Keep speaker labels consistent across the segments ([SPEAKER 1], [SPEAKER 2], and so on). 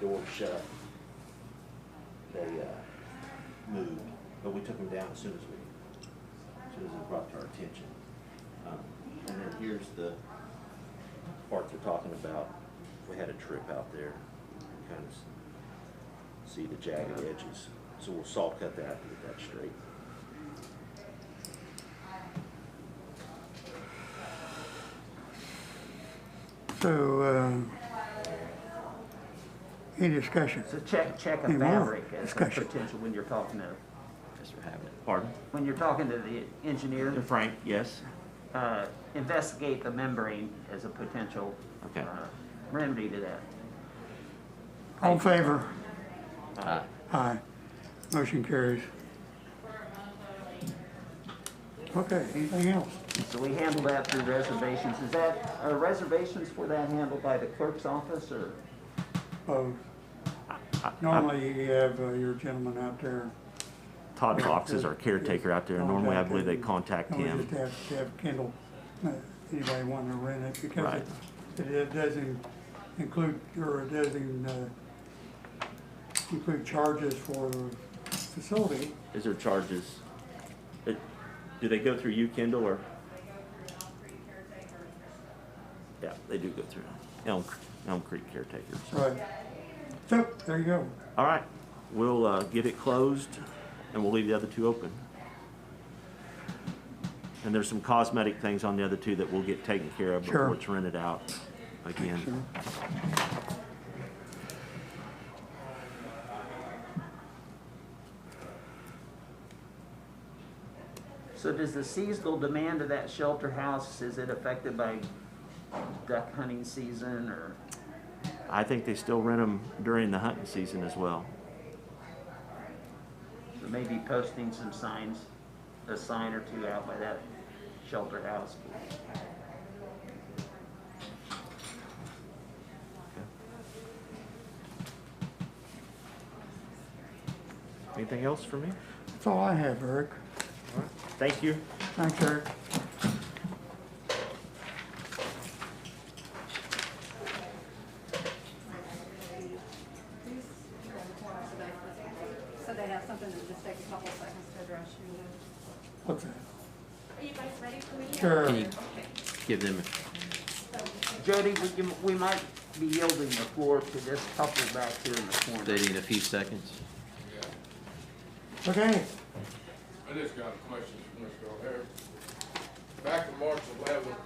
[SPEAKER 1] door shut. They, uh, moved, but we took them down as soon as we, as soon as it brought to our attention. Um, And then here's the part they're talking about. We had a trip out there, You kind of s- see the jagged edges. So we'll saw cut that and get that straight.
[SPEAKER 2] So, um, any discussion?
[SPEAKER 3] So check, check a
[SPEAKER 2] Hey, Warren,
[SPEAKER 3] fabric as a
[SPEAKER 2] discussion.
[SPEAKER 3] potential when you're talking to,
[SPEAKER 4] Mr. Havnet. Pardon?
[SPEAKER 3] when you're talking to the engineer,
[SPEAKER 4] Frank, yes?
[SPEAKER 3] uh, investigate the membrane as a potential
[SPEAKER 4] Okay.
[SPEAKER 3] uh, remedy to that.
[SPEAKER 2] All in favor?
[SPEAKER 4] Aye.
[SPEAKER 2] Aye. Motion carries. Okay, anything else?
[SPEAKER 3] So we handle that through reservations. Is that, are reservations for that handled by the clerk's office or?
[SPEAKER 2] Opposed? Uh, Normally you have uh, your gentleman out there.
[SPEAKER 4] Todd Fox is our caretaker out there. Normally, I believe they contact
[SPEAKER 2] And We
[SPEAKER 4] him.
[SPEAKER 2] just have to have Kendall, uh, anybody want to rent it because
[SPEAKER 4] Right.
[SPEAKER 2] it- it it doesn't include, or it doesn't uh, include charges for the facility.
[SPEAKER 4] Is there charges? It- Do they go through you, Kendall, or? Yeah, they do go through Elm, Elm Creek caretaker. so.
[SPEAKER 2] Right. So, there you go.
[SPEAKER 4] All right, we'll uh, get it closed and we'll leave the other two open. And there's some cosmetic things on the other two that will get taken care of
[SPEAKER 2] Sure.
[SPEAKER 4] before it's rented out again.
[SPEAKER 2] Sure.
[SPEAKER 3] So does the seasonal demand of that shelter house, is it affected by duck hunting season or?
[SPEAKER 4] I think they still rent them during the hunting season as well.
[SPEAKER 3] So maybe posting some signs, a sign or two out by that shelter house.
[SPEAKER 4] Anything else for me?
[SPEAKER 2] That's all I have, Eric.
[SPEAKER 4] Thank you.
[SPEAKER 2] Thanks, Eric.
[SPEAKER 5] So they have something that just takes a couple seconds to address you.
[SPEAKER 2] What's that?
[SPEAKER 5] Are you guys ready for me?
[SPEAKER 2] Sure. Can you-
[SPEAKER 5] Okay.
[SPEAKER 4] Give them.
[SPEAKER 3] Jody, we, can- we might be yielding the floor to this couple back here in the corner.
[SPEAKER 6] They need a few seconds.
[SPEAKER 2] Okay,
[SPEAKER 7] I just got a question for Mr. O'Hare. Back to March eleventh,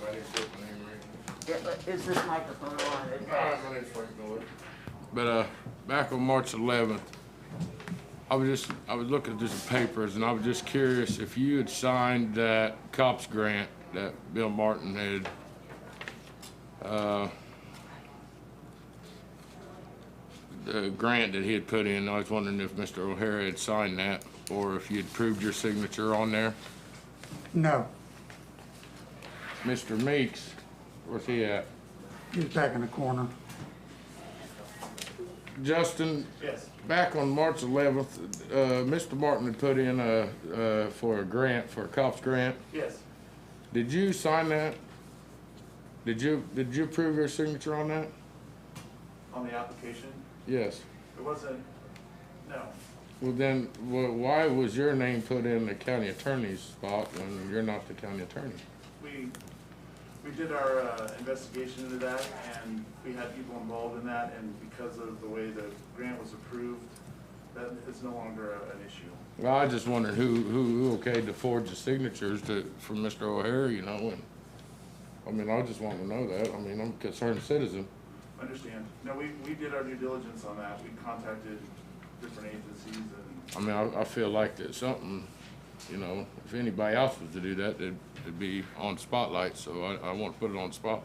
[SPEAKER 7] my name's Rick, my name Rick.
[SPEAKER 3] Yeah, but Is this microphone on? It-
[SPEAKER 7] Hi, my name's Frank Miller. But, uh, back on March eleventh, I was just, I was looking through some papers and I was just curious if you had signed that cops grant that Bill Martin had, uh, the grant that he had put in, I was wondering if Mr. O'Hara had signed that or if you had proved your signature on there.
[SPEAKER 2] no,
[SPEAKER 7] Mr. Meeks, where's he at?
[SPEAKER 2] he's back in the corner.
[SPEAKER 7] Justin? Yes. Back on March eleventh, uh, Mr. Martin had put in a, uh, for a grant, for a cops grant.
[SPEAKER 8] Yes,
[SPEAKER 7] Did you sign that? Did you, did you approve your signature on that?
[SPEAKER 8] on the application.
[SPEAKER 7] Yes.
[SPEAKER 8] It wasn't, no.
[SPEAKER 7] Well, then, wh- why was your name put in the county attorney's spot when you're not the county attorney?
[SPEAKER 8] We, we did our uh, investigation into that and we had people involved in that and because of the way the grant was approved, that is no longer a- an issue.
[SPEAKER 7] Well, I just wondered who, who, who okayed to forge the signatures to, from Mr. O'Hare, you know, and, I mean, I just want to know that. I mean, I'm a concerned citizen.
[SPEAKER 8] Understand? No, we, we did our due diligence on that. We contacted different agencies and
[SPEAKER 7] I mean, I, I feel like there's something, you know, if anybody else was to do that, it'd, it'd be on spotlight, so I, I want to put it on spotlight.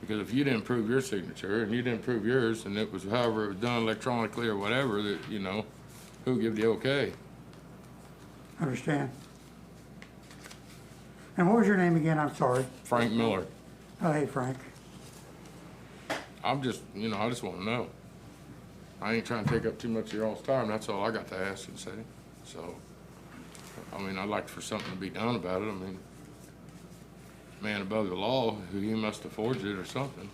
[SPEAKER 7] Because if you didn't prove your signature and you didn't prove yours and it was however it was done electronically or whatever, that, you know, who give the okay?
[SPEAKER 2] Understand? And what was your name again? I'm sorry.
[SPEAKER 7] Frank Miller.
[SPEAKER 2] Oh, hey, Frank.
[SPEAKER 7] I'm just, you know, I just want to know. I ain't trying to take up too much of your all's time. That's all I got to ask and say. So, I mean, I'd like for something to be done about it. I mean, man above the law, he must have forged it or something.